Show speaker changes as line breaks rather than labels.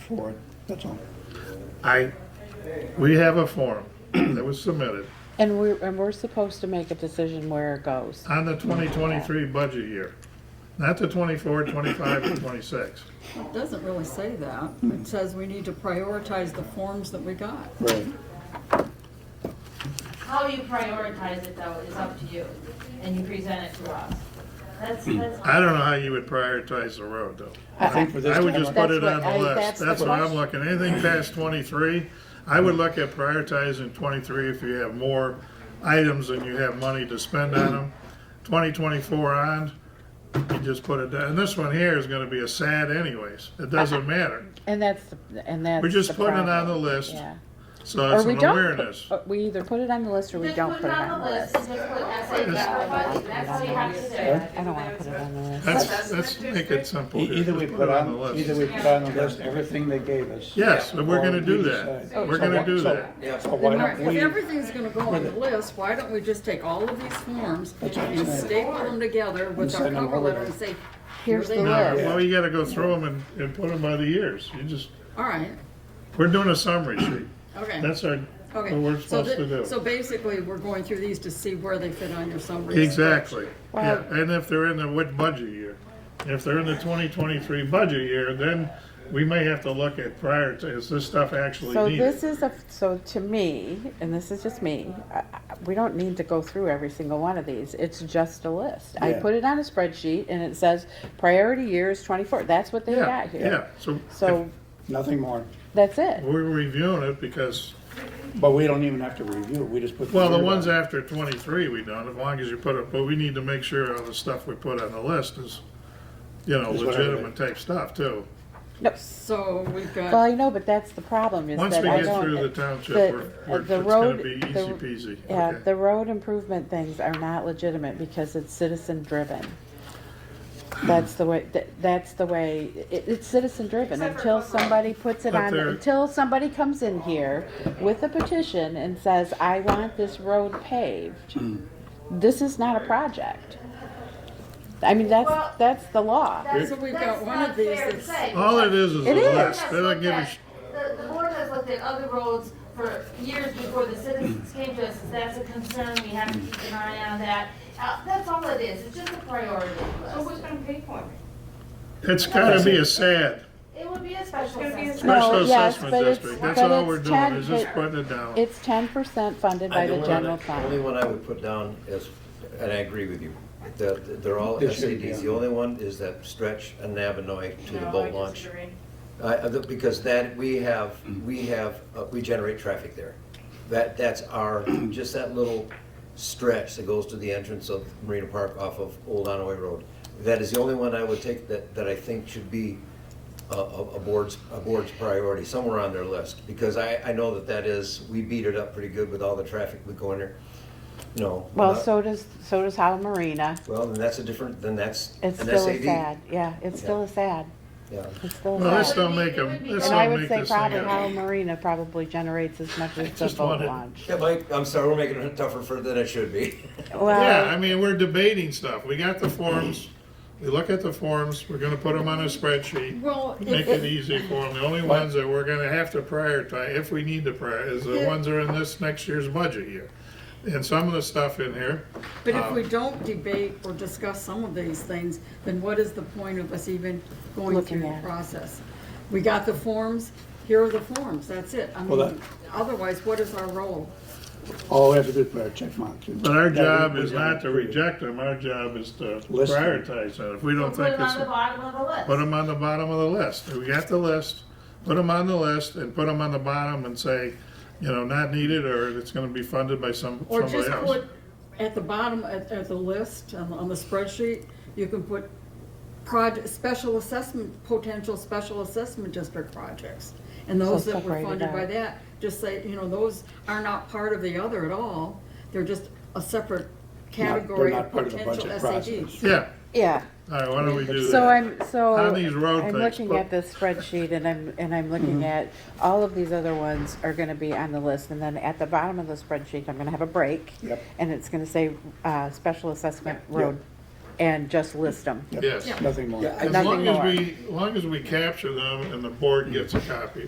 for it, that's all.
I, we have a form that was submitted
And we're, and we're supposed to make a decision where it goes.
on the 2023 budget year, not the 24, 25, and 26.
It doesn't really say that.
Hmm.
It says we need to prioritize the forms that we got.
Right.
How you prioritize it though is up to you, and you present it to us. That's, that's.
I don't know how you would prioritize the road, though.
I think for this
I would
time,
just put it
That's
on
what
the
I-
list.
that's the
That's what I'm
question.
looking, anything past 23, I would look at prioritizing 23 if you have more items and you have money to spend on them. 2024 on, you just put it down. And this one here is gonna be a sad anyways. It doesn't matter.
And that's, the- and that's.
We're just
the
putting it on the
problem.
list,
Yeah.
so
Or
it's
we
an
don't, put-
awareness.
or we either put it on the list or we
Just
don't put it on the list.
Just put essay back on it. that's what you have to do.
I don't wanna put it on the list.
Let's, let's make it simple
E-
here.
Either we
Just
put
it
on,
the list.
either we put on the list everything they gave us.
Yes, and we're gonna
Or
do
we
that.
decide.
We're
So
gonna
why-
do
so-
that.
So why don't
If
we,
everything's gonna go on the list, why don't we just take all of these forms and staple them together with our
send them
cover
all
letter
over.
and say,
Here's the
No,
No,
list.
well, you gotta go through them and, and put them by the years. You just,
all right,
we're doing a summary sheet.
okay,
That's our, what we're
okay. So
supposed to
thi- So
do.
basically, we're going through these to see where they fit on your summary.
Exactly. Yeah,
Well-
and if they're in the, what budget year? If they're in the twenty twenty-three budget year, then we may have to look at prior to, is this stuff actually
So
needed?
this is a, so to me, and this is just me, I- I- we don't need to go through every single one of these. It's just a list. I
Yeah.
put it on a spreadsheet and it says priority year is twenty-four. That's what they
Yeah,
got
yeah.
here.
So
So
nothing more,
that's it.
we're reviewing it because
but we don't even have to review, it. we just put.
Well, the
word
ones
on it.
after twenty-three, we don't, as long as you put it, but we need to make sure all the stuff we put on the list is, you know,
Is what I read.
legitimate type stuff too.
No,
So we've
Well,
got,
I know, but that's the problem is
Once
that
we
I
get
don't.
through the township,
the-
we're, we're, it's
the
gonna
road-
be
the-
easy peasy.
Yeah,
Okay.
the road improvement things are not legitimate because it's citizen driven. That's the way, that, that's the way, it, it's citizen driven until somebody puts it
But
on,
they're-
until somebody comes in here with a petition and says, I want this road paved. This is not a project. I mean,
Well,
that's, that's the law.
so we've got one of these that's,
All it is is a
It is.
list, they don't give a sh-
The, the board has looked at other roads for years before the citizens came to us, that's a concern, we have to keep an eye on that. Uh, that's all it is, it's just a priority
So
list.
who's gonna pay for it?
it's gotta be a sad,
It would be a special
gonna be a
assessment.
special
No, yes,
assessment
but it's-
district, that's
but
all
it's
we're doing,
10,
is just
but-
putting it down.
It's ten percent funded by
I
the
don't
general
wanna- Only
fund.
one I would put down is, and I agree with you, that they're all
This should be
SADs.
on.
The only one is that stretch and Navinoy to the
No, I
boat launch.
disagree.
I- I don't- Because that, we have, we have, uh, we generate traffic there. That, that's our, just that little stretch that goes to the entrance of Marina Park off of Old Onaway Road. That is the only one I would take that, that I think should be a, a a board's, a board's priority, somewhere on their list. Because I, I know that that is, we beat it up pretty good with all the traffic we go in there. No.
Well,
not-
so does, so does Howell Marina.
Well, then that's a different, then that's an
It's still a
SAD.
sad, yeah, it's still a sad,
Yeah.
it's still
Well,
a
let's
sad.
don't make them, let's
And I
don't
would
make
say
this thing
probably
up.
Howell Marina probably generates as much as the
just
boat
wanted-
launch.
Yeah, Mike, I'm sorry, we're making it tougher for, than it should be.
Yeah, I
Well,
mean, we're debating stuff, we got the forms, we look at the forms, we're gonna put them on a spreadsheet.
well,
Make
if,
it easy for them. The only ones that we're gonna have to prioritize, if we need to prioritize, is the
Yeah.
ones that are in this next year's budget year. And some of the stuff in here,
But if we don't debate or discuss some of these things, then what is the point of us even going
Looking
through the
at it.
process? We got the forms, here are the forms, that's it. I
Well,
mean, otherwise, what is our role?
Oh, that's a good prayer, check mark.
but our job is not to reject them, our job is to
List them.
prioritize them. If we
We'll
don't
Put
think
it
it's,
on the bottom of the list.
put them on the bottom of the list. We got the list, put them on the list and put them on the bottom and say, you know, not needed or it's gonna be funded by some,
Or
somebody
just
else.
put at the bottom, at, at the list, on, on the spreadsheet, you can put project, special assessment, potential special assessment district projects. And those that were
separate it
funded by
out.
that, just say, you know, those are not part of the other at all, they're just a separate category
not
of
part of the
potential
budget
SADs.
Yeah,
yeah,
all right, why don't we do that?
so I'm, so,
On these road
I'm
things,
looking
but-
at this spreadsheet and I'm, and I'm looking at, all of these other ones are gonna be on the list. And then at the bottom of the spreadsheet, I'm gonna have a break.
Yep.
And it's gonna say, uh, special assessment road and just list them.
Yep,
Yes.
Nothing more.
Yeah, I
As
Nothing
long as
more.
we, as long as we capture them and the board gets a copy,